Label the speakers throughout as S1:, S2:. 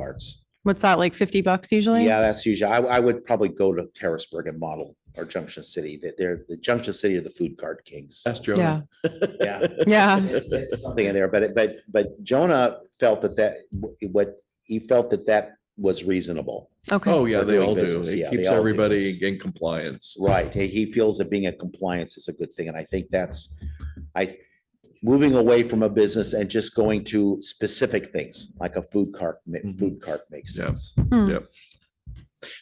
S1: carts.
S2: What's that, like fifty bucks usually?
S1: Yeah, that's usually, I, I would probably go to Harrisburg and model or Junction City, that they're, the Junction City are the food cart kings.
S3: That's Joe.
S2: Yeah,
S1: Yeah.
S2: yeah,
S1: It's- it's Something in there, but, it- but, but Jonah felt that that, what, he felt that that was reasonable.
S2: okay,
S3: Oh, yeah,
S1: They're
S3: they
S1: doing
S3: all do.
S1: business, yeah,
S3: It
S1: they
S3: keeps
S1: all do
S3: everybody
S1: this.
S3: in compliance.
S1: Right, he, he feels that being in compliance is a good thing, and I think that's, I, moving away from a business and just going to specific things, like a food cart, ma-
S3: Mhm.
S1: food cart makes
S3: Yeah.
S1: sense.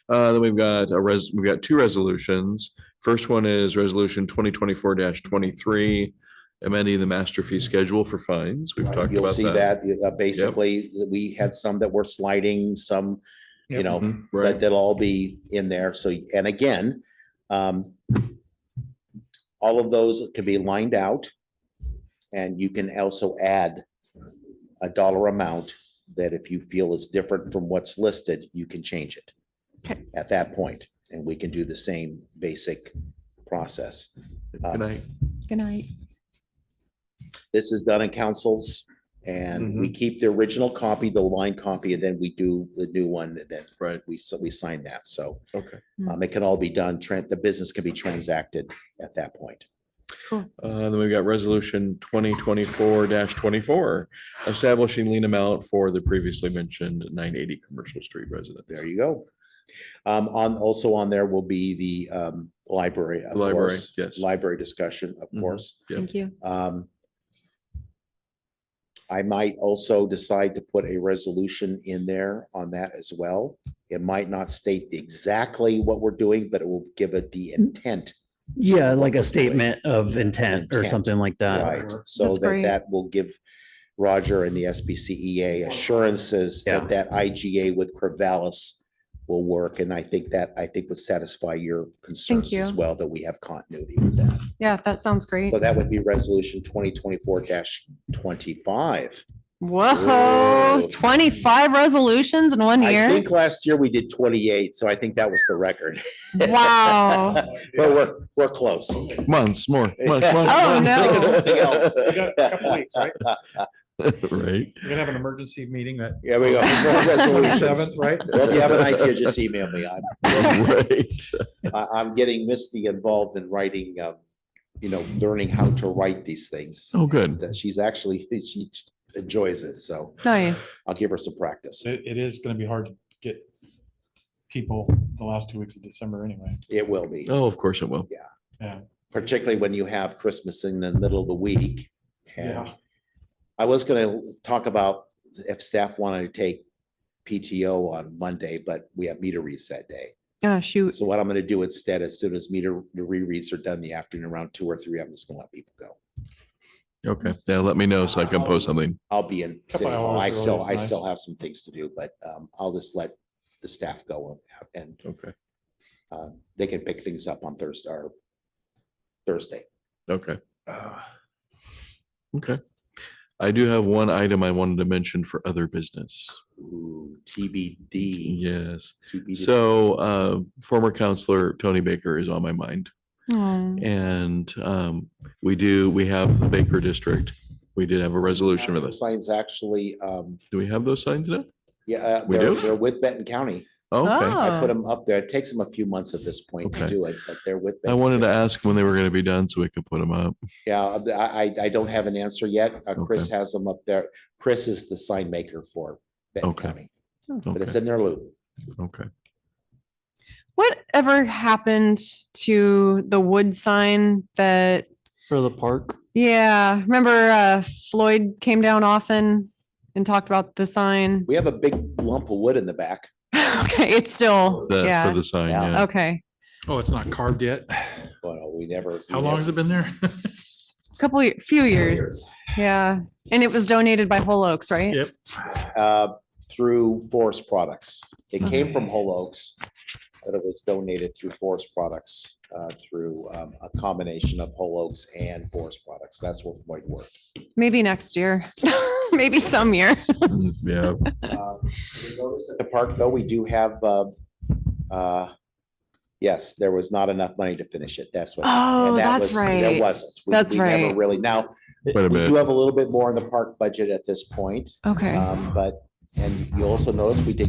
S3: Uh, then we've got a res, we've got two resolutions. First one is resolution twenty twenty-four twenty-three, amending the master fee schedule for fines. We've talked
S1: You'll
S3: about
S1: see
S3: that.
S1: that, uh, basically, that we had some that were sliding, some, you
S4: Yep.
S1: know,
S3: Mhm,
S1: but
S3: Right,
S1: that'll all be in there, so, and again, um, all of those can be lined out, and you can also add a dollar amount that if you feel is different from what's listed, you can change it
S2: Okay.
S1: at that point, and we can do the same basic process. Uh,
S3: good night.
S2: good night.
S1: this is done in councils and
S3: Mm-hmm.
S1: we keep the original copy, the line copy, and then we do the new one and then
S3: Right,
S1: we, so we sign that. So
S3: okay.
S1: um, it can all be done, tran- the business can be transacted at that point.
S3: Uh, then we've got resolution twenty twenty-four twenty-four, establishing lien amount for the previously mentioned nine eighty Commercial Street residence.
S1: There you go. Um, on, also on there will be the um, library, of
S3: Library,
S1: course.
S3: yes.
S1: Library discussion, of
S3: Mhm.
S1: course.
S3: Yep.
S2: Thank you.
S1: Um, I might also decide to put a resolution in there on that as well. It might not state exactly what we're doing, but it will give it the
S2: Mm-hmm.
S1: intent,
S4: Yeah,
S1: what
S4: like
S1: we're doing.
S4: a statement of intent or
S1: Intent,
S4: something like that.
S1: right? So
S2: That's
S1: that
S2: great.
S1: that will give Roger and the SBCEA E assurances
S4: Yeah.
S1: that that IGA with Corvallis will work, and I think that, I think would satisfy your concerns as
S2: you.
S1: well, that we have continuity with that.
S2: Yeah, that sounds great.
S1: So that would be resolution twenty twenty-four twenty-five.
S2: Whoa,
S1: Whoa.
S2: twenty-five resolutions in one
S1: I
S2: year?
S1: think last year we did twenty-eight, so I think that was the record.
S2: Wow.
S1: But we're, we're close.
S3: Months, more. months,
S1: Yeah.
S3: months,
S2: Oh,
S3: months.
S2: no.
S1: Think of something else.
S4: We
S1: got
S4: a couple weeks, right?
S3: Right.
S4: We're gonna have an emergency meeting that
S1: Here we go. Resolutions.
S4: right?
S1: Well, if you have an idea, just email me. I'm,
S3: Oh, Right.
S1: I- I'm getting Misty involved in writing, um, you know, learning how to write these things.
S3: Oh, good.
S1: That she's actually, she enjoys it, so
S2: Nice.
S1: I'll give her some practice.
S5: It, it is gonna be hard to get people the last two weeks of December anyway.
S1: It will be,
S3: Oh, of course it will.
S1: particularly when you have Christmas in the middle of the week. And
S5: Yeah.
S1: I was gonna talk about if staff wanted to take PTO on Monday, but we have meter reads that day.
S2: Ah, shoot.
S1: So what I'm gonna do instead, as soon as meter the rereads are done in the afternoon around two or three, I'm just gonna let people go.
S3: Okay. Yeah, let me know so I can post something.
S1: I'll be in,
S5: Couple
S1: City Hall.
S5: hours
S1: I
S5: early
S1: still,
S5: is
S1: I still
S5: nice.
S1: have some things to do, but um, I'll just let the staff go and
S3: Okay.
S1: um, they can pick things up on Thursday or Thursday.
S3: Okay. Okay. I do have one item I wanted to mention for other business.
S1: Ooh,
S3: E.
S1: TBD.
S3: Yes.
S1: TBD.
S3: So uh, former counselor Tony Baker is on my mind.
S2: Oh,
S3: And um, we do, we have the Baker District. We did have a resolution for this.
S1: Signs actually, um,
S3: Do we have those signs now?
S1: yeah, uh,
S3: We
S1: they're,
S3: do?
S1: they're with Benton County.
S3: Okay.
S1: I
S2: Oh.
S1: put them up there. It takes them a few months at this point to
S3: Okay.
S1: do it, but they're with.
S3: I
S1: Benton
S3: wanted to
S1: County.
S3: ask when they were going to be done so we could put them up.
S1: Yeah, uh, I, I, I don't have an answer yet. Uh, Chris has them up there. Chris is the sign maker for Benton
S3: Okay.
S1: County, but it's
S3: Okay.
S1: in their loop.
S3: Okay.
S2: Whatever happened to the wood sign that,
S4: For the park.
S2: yeah, remember uh Floyd came down often and talked about the sign?
S1: We have a big lump of wood in the back.
S2: Okay, it's still,
S3: The- For
S2: yeah,
S3: the sign,
S1: Yeah.
S3: yeah.
S2: okay.
S4: Oh, it's not carved yet.
S1: Well, we never.
S4: How long has it been there?
S2: Couple, ye- few years, yeah. And it was donated by Whole Oaks, right?
S4: Yep.
S1: Uh, through Forest Products. It
S2: Mm-hmm.
S1: came from Whole Oaks, but it was donated through Forest Products, uh, through, um, a combination of Whole Oaks and Forest Products. That's what might work.
S2: Maybe next year, maybe some year.
S3: Mm, Yeah.
S1: Uh, you notice At the park, though, we do have, uh, uh, yes, there was not enough money to finish it. That's what.
S2: Oh,
S1: and that was-
S2: that's
S1: There
S2: right.
S1: wasn't. We-
S2: That's
S1: we never
S2: right.
S1: Really. Now, we
S3: Quite a bit.
S1: do have a little bit more in the park budget at this point,
S2: Okay,
S1: um, but And you also notice we did